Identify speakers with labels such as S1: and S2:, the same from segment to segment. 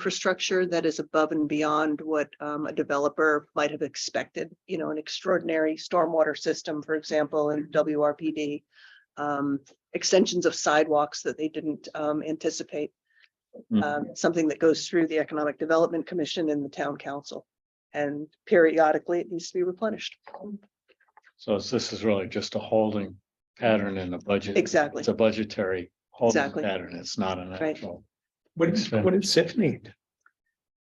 S1: infrastructure that is above and beyond what um, a developer might have expected. You know, an extraordinary stormwater system, for example, in WRPD. um, Extensions of sidewalks that they didn't um, anticipate.
S2: Mhm.
S1: um, Something that goes through the Economic Development Commission and the Town Council. And periodically, it needs to be replenished.
S2: So it's- this is really just a holding pattern in the budget.
S1: Exactly.
S2: It's a budgetary holding
S1: Exactly.
S2: pattern. It's not an
S1: Right.
S2: actual.
S3: What
S2: is-
S3: is,
S2: what
S3: what is SIF need?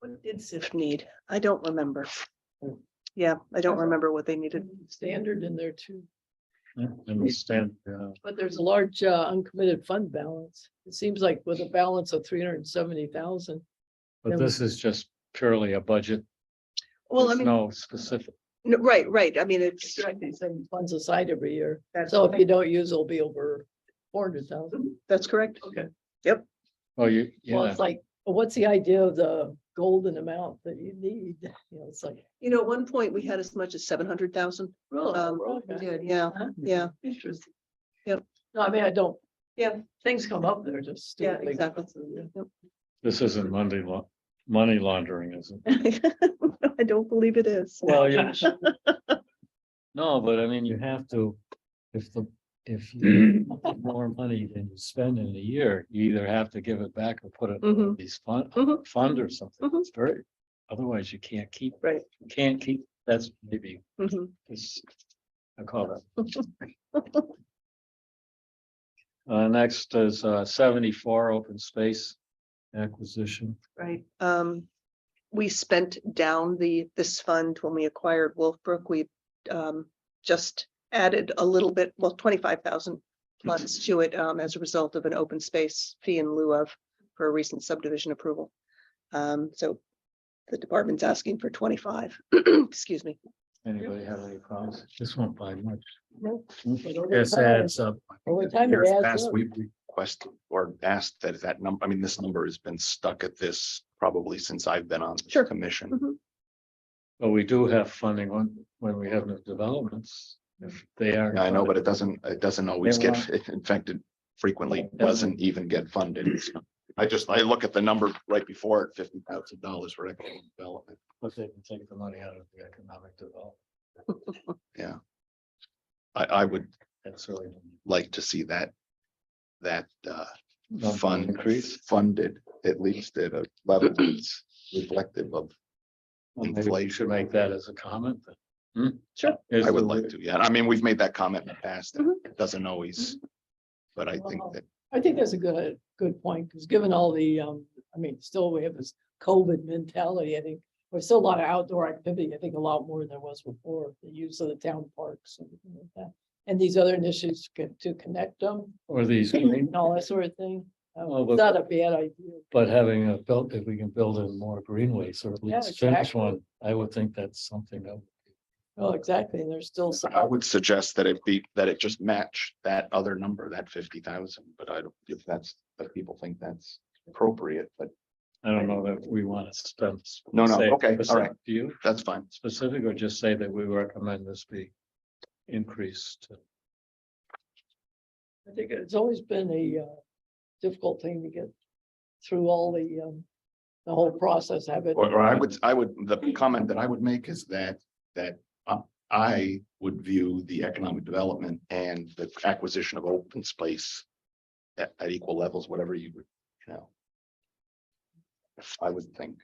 S1: What did SIF need? I don't remember. Yeah, I don't remember what they needed.
S4: Standard in there too,
S2: I Understand, yeah.
S4: but there's a large uh, uncommitted fund balance. It seems like with a balance of three hundred and seventy thousand.
S2: but this is just purely a budget.
S1: Well, I
S2: There's
S1: mean,
S2: No specific,
S1: no, right, right. I mean, it's.
S4: Funds aside every year,
S1: that's-
S4: so if you don't use, it'll be over four hundred thousand.
S1: That's correct.
S4: Okay.
S2: oh, you,
S4: Well,
S2: yeah,
S4: it's like, what's the idea of the golden amount that you need? You know, it's like.
S1: You know, at one point, we had as much as seven hundred thousand. Um, we
S4: really?
S1: did, yeah, yeah.
S4: oh, Interesting.
S1: Yep.
S4: No, I mean, I don't.
S1: Yeah.
S4: Things come up, they're just.
S1: Yeah,
S4: stupid things.
S1: exactly.
S2: this isn't money law, money laundering, is it?
S1: I don't believe it is.
S2: Well, you. No, but I mean, you have to, if the, if you have more money than you spend in a year, you either have to give it back or put it in
S1: Mhm.
S2: these fund,
S1: Mhm.
S2: fund or something.
S1: Mhm.
S2: It's very, otherwise you can't keep.
S1: Right.
S2: you Can't keep, that's maybe,
S1: Mhm.
S2: it's, I call that. Uh, next is uh, seventy-four open space acquisition.
S1: Right. Um, we spent down the, this fund when we acquired Wolfbrook. We um, just added a little bit, well, twenty-five thousand funds to it um, as a result of an open space fee in lieu of for a recent subdivision approval. Um, so the department's asking for twenty-five, excuse me.
S2: Anybody have any problems? This won't buy much.
S4: But over
S2: This
S4: time-
S2: adds up.
S4: Over time, it
S5: Years
S4: adds
S5: past,
S4: up.
S5: we've requested or asked that that number, I mean, this number has been stuck at this probably since I've been on
S1: Sure.
S5: this commission.
S1: Mhm.
S2: But we do have funding when, when we have new developments, if they are.
S5: I know, but it doesn't, it doesn't always get, in fact, it frequently doesn't even get funded. I just, I look at the number right before it, fifty thousand dollars for economic development.
S2: But they can take the money out of the economic development,
S5: I, I would
S2: that's really.
S5: like to see that, that, uh,
S2: Not
S5: fund
S2: increase.
S5: funded, at least at a level that's reflective of
S2: Well, maybe we Should make that as a comment. hmm?
S1: Sure.
S5: I would like to, yeah. I mean, we've made that comment in the past. and It doesn't always. But I think that,
S4: I think that's a good, good point, because given all the, um, I mean, still we have this COVID mentality, I think. There's still a lot of outdoor activity, I think a lot more than there was before, the use of the town parks and everything like that. And these other initiatives co- to connect them
S2: Or these, green-
S4: and all that sort of thing.
S2: Well,
S4: Um,
S2: but-
S4: It's not a bad idea.
S2: but having a built, if we can build in more greenways or at
S4: Yeah,
S2: least finish
S4: exactly.
S2: one, I would think that's something that.
S4: Well, Oh, exactly, and there's still some.
S5: I would suggest that it be, that it just match that other number, that fifty thousand, but I don't, if that's, if people think that's appropriate, but
S2: I don't know that we want to spend.
S5: No, no,
S2: say-
S5: okay, all
S2: specific
S5: right.
S2: Do you
S5: that's fine.
S2: specific or just say that we recommend this be increased?
S4: I think it's always been a uh, difficult thing to get through all the, um, the whole process, have it.
S5: Or, or I would, I would, the comment that I would make is that, that uh, I would view the economic development and the acquisition of open space at, at equal levels, whatever you would, you know. I would think.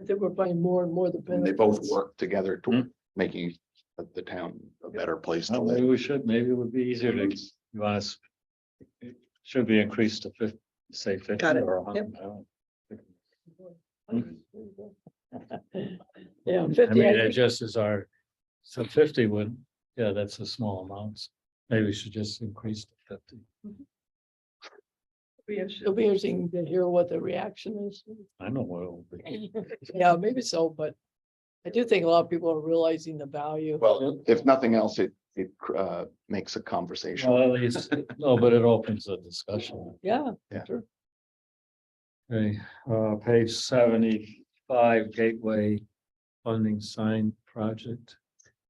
S4: I think we're finding more and more the.
S5: And they both
S4: benefits.
S5: work together
S2: Hmm.
S5: to making the- the town a better place to
S2: Well, Maybe
S5: live.
S2: we should, maybe it would be easier to, you want us. it Should be increased to fifty, say fifty
S1: Got it.
S2: or a hundred. I don't-
S4: Yeah,
S2: I
S4: fifty,
S2: mean,
S4: I
S2: it
S4: think-
S2: just is our, so fifty would, yeah, that's a small amount. Maybe we should just increase to fifty.
S4: it'll be interesting to hear what the reaction is.
S2: I know what it will be.
S4: Yeah, maybe so, but I do think a lot of people are realizing the value.
S5: Well, if nothing else, it, it uh, makes a conversation.
S2: Well, at least, no, but it opens a discussion.
S4: Yeah,
S2: Okay, uh, page seventy-five Gateway Funding Sign Project.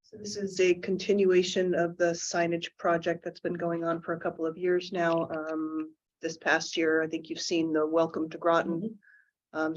S1: So this is a continuation of the signage project that's been going on for a couple of
S4: Mm-hmm.
S1: years now. Um, this past year, I think you've seen the Welcome to Groton. Um,